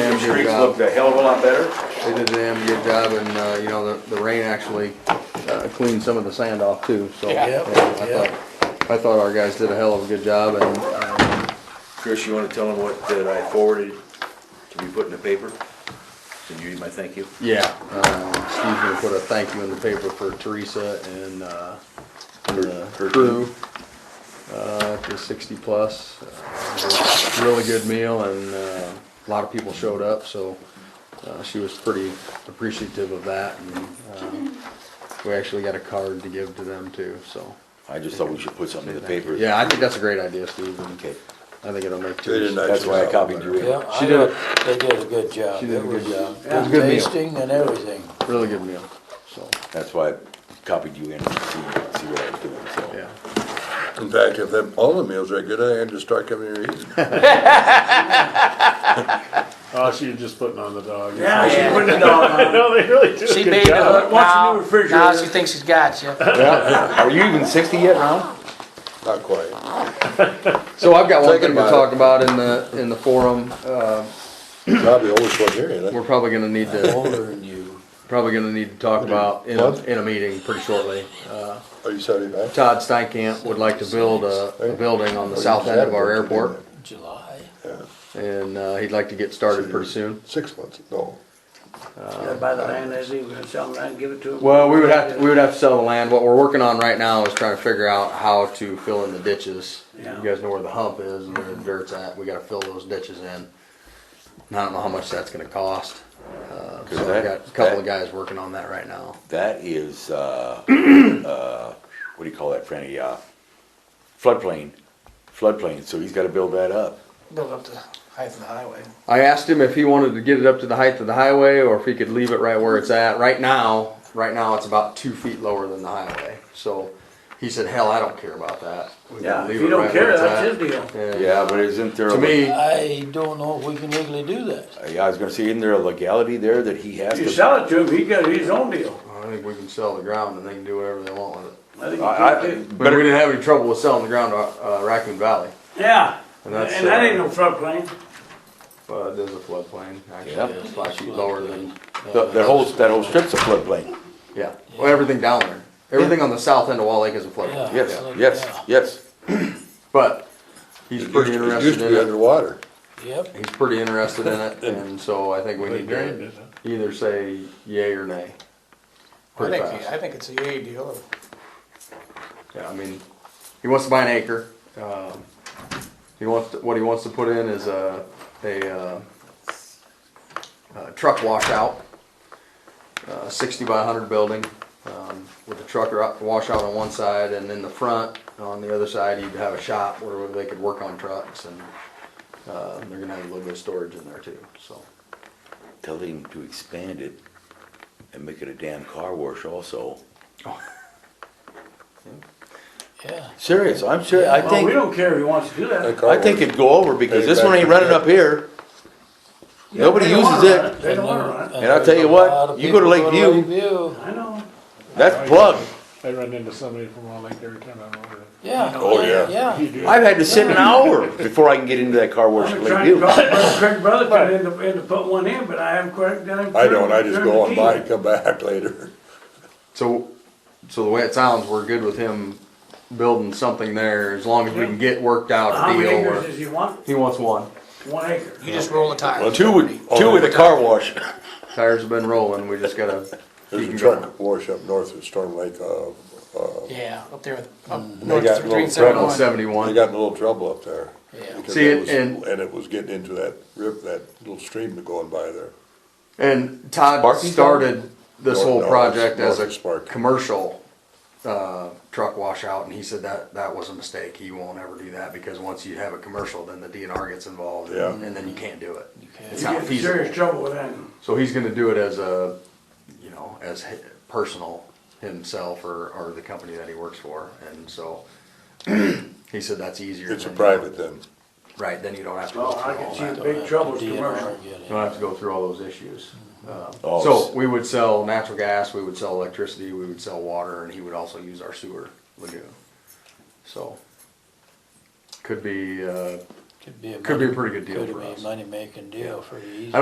looked job. a hell of a lot better. uh, They did a damn good job and, uh, you know, the, the rain actually uh, cleaned some of the sand off too, so. Yeah. yeah, I thought- I thought our guys did a hell of a good job and, um, Chris, you wanna tell them what that I forwarded to be put in the paper? Did you read my thank you? yeah, um, Steve's gonna put a thank you in the paper for Teresa and, uh, and the Her- her crew. Uh, to sixty plus, Uh, really good meal and, uh, a lot of people showed up, so, uh, she was pretty appreciative of that and, um, we actually got a card to give to them too, so. I just thought we should put something in the Thank you. paper. Yeah, I think that's a great idea, Steve, and Okay, I think it'll make They did a Teresa. nice that's why I job. copied you. in. Yeah, I She did a- thought they did a good job. She did a It good was job. It was a Good good meal. tasting and everything. Really good meal, so, That's why I copied you in to see, see what I was doing, so. yeah. In fact, if them, all the meals are good, I had to start coming here eating. Oh, she was just putting on the dog. Yeah, she put the dog on. No, they really do She a good made the job. hook Wants a new now, now refrigerator. she thinks she's got you. Are you even sixty yet, Ron? Not quite. So I've got one Thinking thing to about talk about in the, in the forum, uh, Probably always one here, ain't we're I? probably gonna need to, Older than you. probably gonna need to talk about in, a- What? in a meeting pretty shortly. Uh, Are Oh, you sorry about? that? Todd Steinkamp would like to build a, a building on the south end of our airport, July. and, uh, he'd like to get started pretty soon. Six months, no. Yeah, By the land, as he was gonna sell them, I'd give it to him. Well, we would have, to we would have to sell the land. What we're working on right now is trying to figure out how to fill in the ditches. You Yeah. guys know where the hump is and where the dirt's at. We gotta fill those ditches in. And I don't know how much that's gonna cost. Uh, Cause so I've that- got a couple of that- guys working on that right now. That is, uh, uh, what do you call that, Franny, uh, floodplain, floodplain, so he's gotta build that up. Build up the height of the highway. I asked him if he wanted to get it up to the height of the highway or if he could leave it right where it's at. Right now, right now, it's about two feet lower than the highway. So he said, hell, I don't care about that. We Yeah, can leave if you it don't right where care, it's that's at." his deal. And Yeah, but isn't there? a- To me, I don't know if we can legally do that. Yeah, I was gonna say, isn't there a legality there that he has You to? sell it to him, he got his own deal. I think we can sell the ground and they can do whatever they want with it. I think I, you can I, too. But we didn't have any trouble with selling the ground to uh, Raccoon Valley, Yeah, And and that's, that uh, ain't no floodplain. but Uh, it is a floodplain, Yeah. actually, it's five feet lower than, the- that whole, that whole strip's a floodplain. yeah, well, everything down there. Everything on the south end of Wall Lake is a floodplain, Yeah. Yes, yes, yes. but he's pretty It used- it used interested to be in it, underwater. Yep. he's pretty interested in it, and so I think we need drained to it, huh? either say yay or nay. I Pretty think, fast. I think it's a yay deal. Yeah, I mean, he wants to buy an acre. Um, he wants to, what he wants to put in is a a, uh, a truck washout, uh, sixty by hundred building um, with a truck or- washout on one side, and in the front on the other side you'd have a shop where they could work on trucks, and uh, they're gonna have a little bit of storage in there too. So Tell him to expand it and make it a damn car wash also. Yeah. Serious, I'm serious, I Well, think, we don't care if he wants to do that. I think it'd go over because this one ain't running up here. Nobody They don't wanna uses it. run They don't wanna run it. And I'll tell you there's a what, lot of you go to people Lakeview- Lakeview. I know. That's plugged. I run into somebody from Wall Lake every time I'm over there. Yeah. Oh, yeah. Yeah. I've had to sit an hour before I can get into that car wash I've at been trying to Lakeview. call Brother Craig Brotherton in to, in to put one in, but I haven't quite done it. I don't, I just go on by and come back later. so so the way it sounds, we're good with him building something there as long as we can get worked out How a many deal. acres where- does he want? he wants one. One acre. You just roll the tire. Two with, two with a car wash. Tires have been rolling, we just gotta. There's keep a 'em going. truck wash up north of Storm Lake, uh, Yeah, up there with, up They got Oh, north On little three One. seventy-one. they seventy-one, got in a little trouble up there. Yeah. because See, it and- and- was- And it was getting into that rip, that little stream that going by there. and Todd Sparky's started this North- whole no, it's project as North a Sparky. commercial, uh, truck washout, and he said that, that was a mistake, he won't ever do that, because once you have a commercial, then the DNR gets involved, and Yeah. and then you can't do it. It's You not get in serious feasible, trouble with that. so he's gonna do it as a, you know, as hi- personal himself or, or the company that he works for, and so, he said that's easier. It's a than- private then. Right, then you don't have to go Well, through I all can that. see the big troubles DNR commercial. get it. You don't have to go through all those issues. Uh, Oh, So s- we would sell natural gas, we would sell electricity, we would sell water, and he would also use our sewer lagoon. So could be, uh, Could be a could be uh, a money- pretty good deal could for be a us. Money-making deal, pretty easy.